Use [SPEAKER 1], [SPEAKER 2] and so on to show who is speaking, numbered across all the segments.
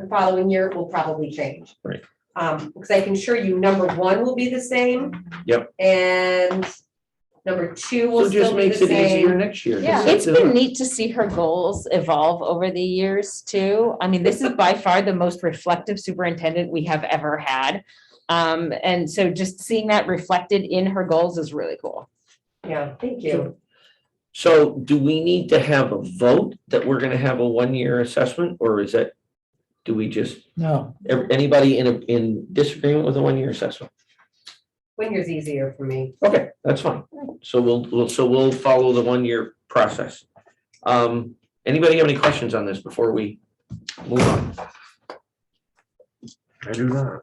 [SPEAKER 1] the following year will probably change.
[SPEAKER 2] Right.
[SPEAKER 1] Um, because I can assure you, number one will be the same.
[SPEAKER 2] Yep.
[SPEAKER 1] And number two will
[SPEAKER 2] So just
[SPEAKER 1] still be the
[SPEAKER 2] makes it easier
[SPEAKER 1] same.
[SPEAKER 2] next year. to
[SPEAKER 1] Yeah.
[SPEAKER 2] set
[SPEAKER 3] It's
[SPEAKER 2] it
[SPEAKER 3] been
[SPEAKER 2] up.
[SPEAKER 3] neat to see her goals evolve over the years too. I mean, this is by far the most reflective superintendent we have ever had. Um, and so just seeing that reflected in her goals is really cool.
[SPEAKER 1] Yeah, thank you.
[SPEAKER 2] So do we need to have a vote that we're gonna have a one-year assessment, or is that, do we just,
[SPEAKER 4] No,
[SPEAKER 2] ev- anybody in, a- in disagreement with a one-year assessment?
[SPEAKER 1] One year's easier for me.
[SPEAKER 2] Okay, that's fine. So we'll, we'll, so we'll follow the one-year process. Um, anybody have any questions on this before we move on? I do not.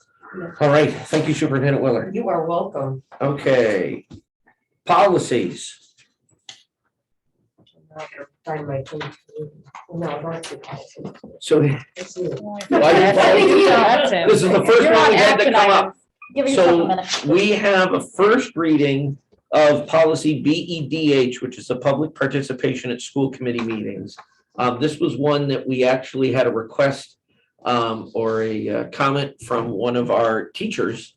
[SPEAKER 2] All right, thank you Superintendent Willard.
[SPEAKER 1] You are welcome.
[SPEAKER 2] Okay. Policies.
[SPEAKER 1] Find my phone. No, I don't have to.
[SPEAKER 2] So
[SPEAKER 1] It's you.
[SPEAKER 3] That's it.
[SPEAKER 2] this is the first
[SPEAKER 5] You're
[SPEAKER 2] one
[SPEAKER 5] on
[SPEAKER 2] we had to
[SPEAKER 5] action
[SPEAKER 2] come
[SPEAKER 5] item.
[SPEAKER 2] up.
[SPEAKER 5] Give yourself a
[SPEAKER 2] So
[SPEAKER 5] minute.
[SPEAKER 2] we have a first reading of policy B E D H, which is the public participation at school committee meetings. Um, this was one that we actually had a request um, or a uh, comment from one of our teachers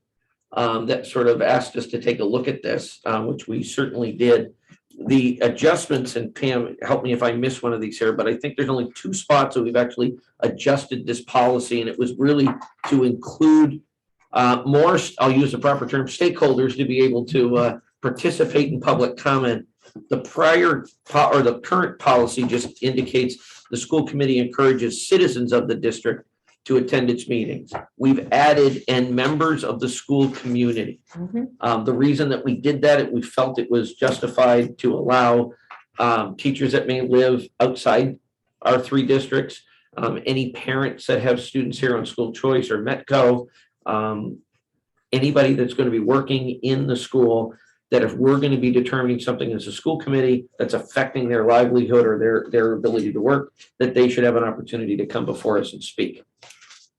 [SPEAKER 2] um, that sort of asked us to take a look at this, uh, which we certainly did. The adjustments, and Pam, help me if I miss one of these here, but I think there's only two spots that we've actually adjusted this policy, and it was really to include uh, more, s- I'll use the proper term, stakeholders to be able to uh, participate in public comment. The prior po- or the current policy just indicates the school committee encourages citizens of the district to attend its meetings. We've added and members of the school community.
[SPEAKER 3] Mhm.
[SPEAKER 2] Um, the reason that we did that, it- we felt it was justified to allow um, teachers that may live outside our three districts, um, any parents that have students here on school choice or Metco, um, anybody that's going to be working in the school, that if we're going to be determining something as a school committee that's affecting their livelihood or their, their ability to work, that they should have an opportunity to come before us and speak.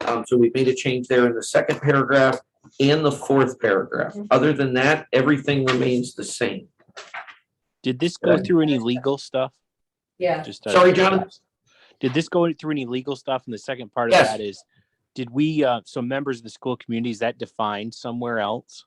[SPEAKER 2] Um, so we've made a change there in the second paragraph and the fourth paragraph. Other than that, everything remains the same.
[SPEAKER 6] Did this go
[SPEAKER 2] Good.
[SPEAKER 6] through any legal stuff?
[SPEAKER 1] Yeah,
[SPEAKER 6] Just out of
[SPEAKER 2] Sorry, Jonathan?
[SPEAKER 6] Did this go through any legal stuff? And the second part of
[SPEAKER 2] Yes.
[SPEAKER 6] that is, did we, uh, so members of the school community, is that defined somewhere else?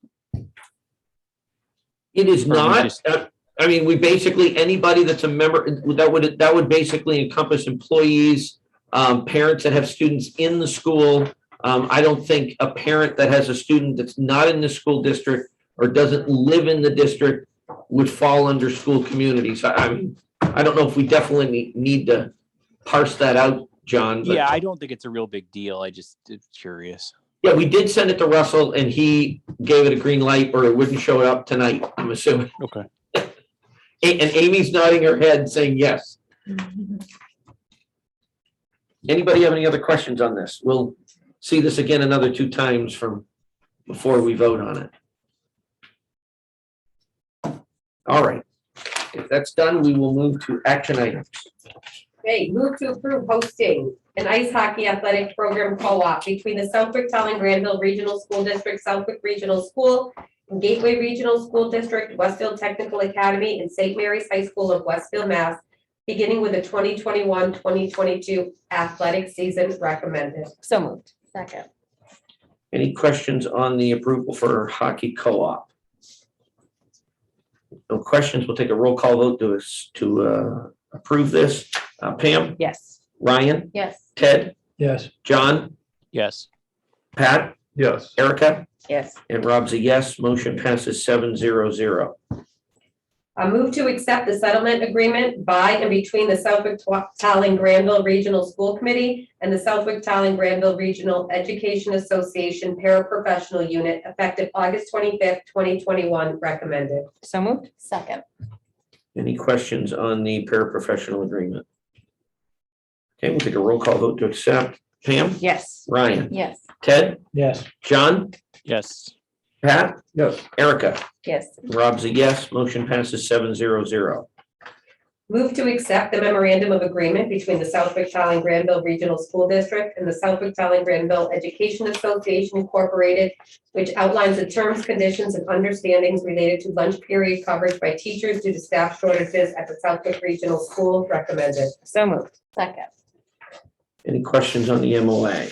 [SPEAKER 2] It is
[SPEAKER 6] Or we
[SPEAKER 2] not,
[SPEAKER 6] just-
[SPEAKER 2] uh, I mean, we basically, anybody that's a member, that would, that would basically encompass employees, um, parents that have students in the school. Um, I don't think a parent that has a student that's not in the school district or doesn't live in the district would fall under school communities. I, I mean, I don't know if we definitely need- need to parse that out, John. but-
[SPEAKER 6] Yeah, I don't think it's a real big deal. I just it's curious.
[SPEAKER 2] Yeah, we did send it to Russell and he gave it a green light or it wouldn't show up tonight, I'm assuming.
[SPEAKER 6] Okay.
[SPEAKER 2] A- And Amy's nodding her head saying yes. Anybody have any other questions on this? We'll see this again another two times from before we vote on it. All right. If that's done, we will move to action items.
[SPEAKER 1] hey, move to approve hosting an ice hockey athletic program co-op between the Southwick Town and Granville Regional School District, Southwick Regional School, and Gateway Regional School District, Westfield Technical Academy, and St. Mary's High School of Westfield, Mass, beginning with the 2021-2022 athletic season recommended.
[SPEAKER 3] So moved.
[SPEAKER 5] Second.
[SPEAKER 2] Any questions on the approval for hockey co-op? No questions. We'll take a roll call vote to us to uh, approve this. Uh, Pam,
[SPEAKER 3] Yes.
[SPEAKER 2] Ryan,
[SPEAKER 5] Yes.
[SPEAKER 2] Ted,
[SPEAKER 4] yes.
[SPEAKER 2] John,
[SPEAKER 6] Yes.
[SPEAKER 2] Pat,
[SPEAKER 4] Yes.
[SPEAKER 2] Erica,
[SPEAKER 3] Yes.
[SPEAKER 2] and Rob's a yes. Motion passes seven zero zero.
[SPEAKER 1] I move to accept the settlement agreement by and between the Southwick Talon Granville Regional School Committee and the Southwick Talon Granville Regional Education Association Paraprofessional Unit effective August twenty-fifth, twenty twenty-one, recommended.
[SPEAKER 3] So moved.
[SPEAKER 5] Second.
[SPEAKER 2] Any questions on the paraprofessional agreement? Okay, we'll take a roll call vote to accept. Pam,
[SPEAKER 3] Yes.
[SPEAKER 2] Ryan,
[SPEAKER 5] Yes.
[SPEAKER 2] Ted,
[SPEAKER 4] Yes.
[SPEAKER 2] John,
[SPEAKER 6] Yes.
[SPEAKER 2] Pat,
[SPEAKER 4] Yes.
[SPEAKER 2] Erica.
[SPEAKER 3] Yes.
[SPEAKER 2] Rob's a yes. Motion passes seven zero zero.
[SPEAKER 1] Move to accept the memorandum of agreement between the Southwick Talon Granville Regional School District and the Southwick Talon Granville Education Association Incorporated, which outlines the terms, conditions, and understandings related to lunch period coverage by teachers due to staff shortages at the Southwick Regional School, recommended.
[SPEAKER 3] So moved.
[SPEAKER 5] Second.
[SPEAKER 2] Any questions on the MOA?